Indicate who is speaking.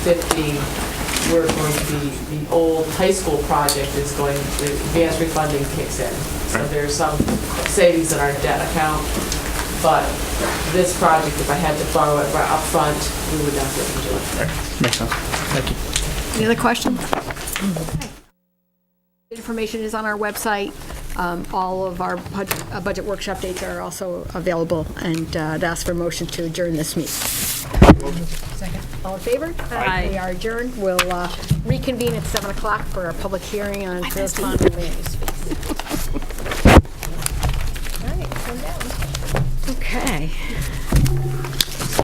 Speaker 1: 50, we're going to be, the old high school project is going, the advanced refunding kicks in. So
Speaker 2: Right.
Speaker 1: there's some savings in our debt account, but this project, if I had to borrow it right up front, we would definitely do it.
Speaker 2: Makes sense. Thank you.
Speaker 3: Any other questions? Information is on our website. Um, All of our budget- uh, budget workshop dates are also available, and uh, I'd ask for a motion to adjourn this meeting. Second. All in favor? Aye. We are adjourned. We'll uh, reconvene at 7 o'clock for our public hearing on Phillips Pond land use.
Speaker 4: Okay.